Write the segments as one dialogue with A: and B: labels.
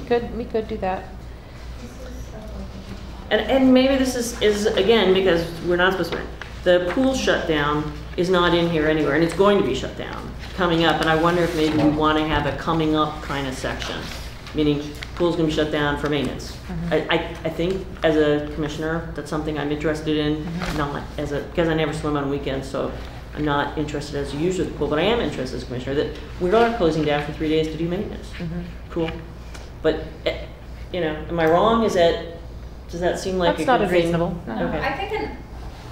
A: could, we could do that.
B: And, and maybe this is, is again, because we're not supposed to, the pool shutdown is not in here anywhere, and it's going to be shut down coming up, and I wonder if maybe we want to have a coming up kind of section, meaning pool's gonna be shut down for maintenance. I, I, I think as a commissioner, that's something I'm interested in, not as a, because I never swim on weekends, so I'm not interested as a user of the pool, but I am interested as a commissioner, that we're not closing down for three days to do maintenance. Cool. But, eh, you know, am I wrong? Is that, does that seem like a
A: That's not
B: good thing?
A: unreasonable, no.
B: Okay.
C: I think an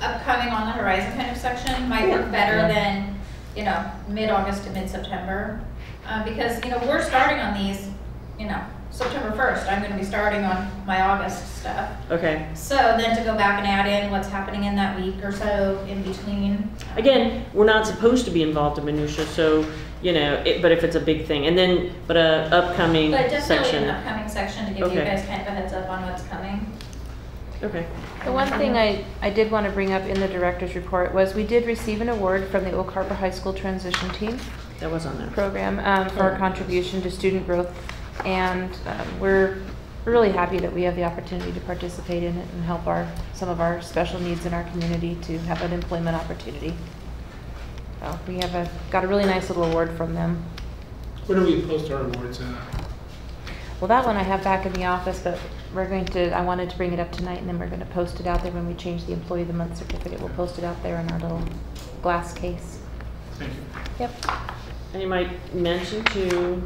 C: upcoming on the horizon kind of section might
B: Yeah.
C: work better
B: Yeah.
C: than, you know, mid-August to mid-September. Uh, because, you know, we're starting on these, you know, September first, I'm gonna be starting on my August stuff.
B: Okay.
C: So then to go back and add in what's happening in that week or so in between.
B: Again, we're not supposed to be involved in minutia, so, you know, it, but if it's a big thing, and then, but a upcoming
C: But definitely an
B: section.
C: upcoming section to give you
B: Okay.
C: guys kind of a heads up on what's coming.
B: Okay.
A: The one thing I, I did want to bring up in the director's report was we did receive an award from the Oak Harbor High School Transition Team
B: That was on there.
A: program um, for our contribution to student growth. And um, we're really happy that we have the opportunity to participate in it and help our, some of our special needs in our community to have an employment opportunity. So we have a, got a really nice little award from them.
D: Where do we post our awards at?
A: Well, that one I have back in the office, but we're going to, I wanted to bring it up tonight, and then we're gonna post it out there when we change the employee of the month certificate. We'll post it out there in our little glass case.
D: Thank you.
A: Yep.
B: And you might mention to,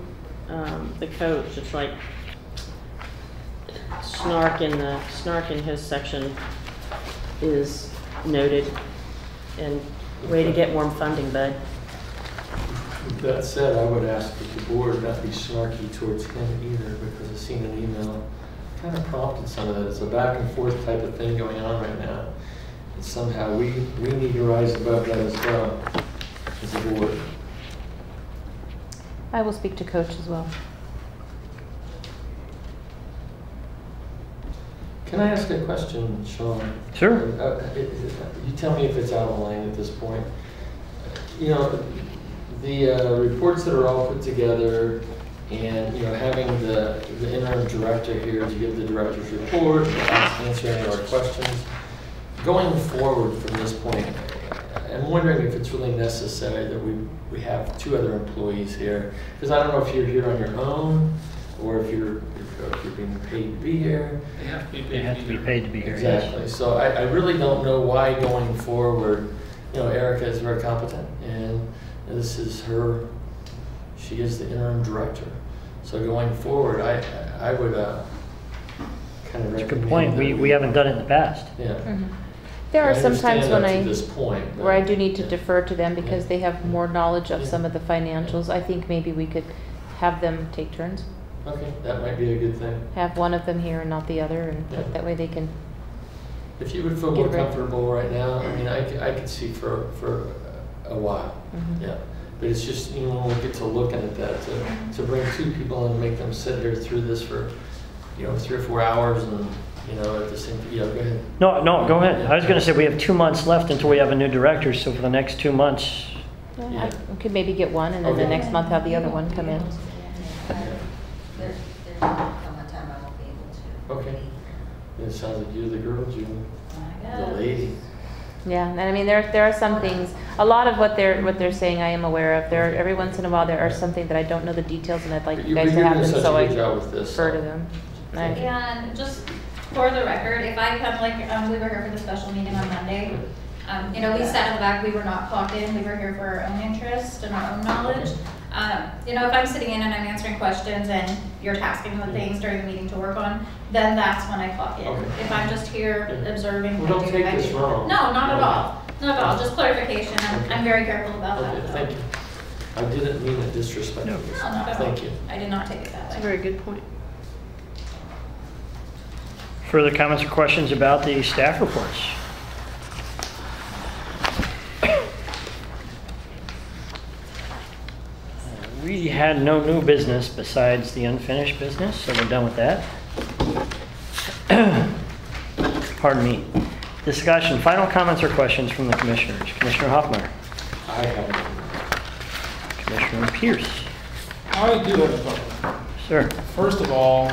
B: um, the coach, it's like snark in the, snark in his section is noted. And way to get more funding, bud.
E: With That said, I would ask that the board not be snarky towards him either, because I've seen an email kind of prompted some of that. It's a back and forth type of thing going on right now. And somehow we, we need to rise above that as well, as a board.
A: I will speak to coach as well.
E: Can I ask a question, Sean?
F: Sure.
E: Uh, it- it- You tell me if it's out of line at this point. You know, the uh, reports that are all put together and, you know, having the the interim director here to give the director's report, answer any of our questions. Going forward from this point, I'm wondering if it's really necessary that we, we have two other employees here. Because I don't know if you're here on your own or if you're, if you're being paid to be here.
D: They have to be paid.
F: They have to be paid to be here, yes.
E: Exactly, so I, I really don't know why going forward, you know, Erica is very competent, and this is her, she is the interim director. So going forward, I, I would, uh, kind of
F: It's a
E: recommend.
F: good point, we,
E: that
F: we haven't done it in the past.
E: Yeah.
A: Mm-hmm. There are
E: I
A: some times
E: understand
A: when
E: up
A: I,
E: To this point. but-
A: where I do need to
E: Yeah.
A: defer to them because
E: Yeah.
A: they have more knowledge of
E: Yeah.
A: some of the financials. I think maybe we could have them take turns,
E: Okay, that might be a good thing.
A: have one of them here and not the other, and
E: Yeah.
A: that way they can,
E: If you would feel more
A: Get rid-
E: comfortable right now, I mean, I, c- I could see for, for a while.
A: Mhm.
E: Yeah, but it's just, you know, when we get to looking at that, to, to bring two people and make them sit here through this for, you know, three or four hours and, you know, at the same, yeah, go ahead.
F: No, no, go ahead. I was gonna say, we have two months left until we have a new director, so for the next two months,
A: Yeah, I
E: Yeah.
A: we could maybe get one, and then the
E: Okay.
A: next month have the other one come in.
G: There's, there's not much time I won't be able to.
E: Okay. It sounds like you're the girl, June,
C: Oh
G: I
E: the
G: know.
E: lady.
A: Yeah, and I mean, there, there are some things, a lot of what they're, what they're saying I am aware of. There, are- every once in a while, there are something that I don't know the details and I'd like
E: But
A: you
E: you- but
A: guys to
E: you're
A: have
E: doing
A: them,
E: such a
A: so I
E: good job with this,
A: refer to
E: so.
A: them.
E: Thank
A: I-
C: And just for the record, if I come, like, um, we were here for the special meeting on Monday, um, you know, we sat in the back, we were not clocked in, we were here for our own interest and our own knowledge. Um, you know, if I'm sitting in and I'm answering questions and you're tasking with things during the meeting to work on, then that's when I clock in.
E: Okay.
C: If I'm just here
E: Yeah.
C: observing.
E: Well,
C: I
E: don't
C: do-
E: take
C: I do.
E: this wrong.
C: No, not at
E: Yeah.
C: all, not at all, just clarification, I'm, I'm very careful about that.
E: Okay,
C: though.
E: thank you. I didn't mean it disrespectfully.
F: No.
C: No, not at all,
E: Thank you.
C: I did not take it that way.
B: That's a very good point.
F: further comments or questions about the staff reports? Uh, We had no new business besides the unfinished business, so we're done with that. Pardon me. Discussion, final comments or questions from the commissioners? Commissioner Hoffmeyer,
E: I have,
F: Commissioner Pierce,
D: I do have a couple.
F: sir.
D: First of all,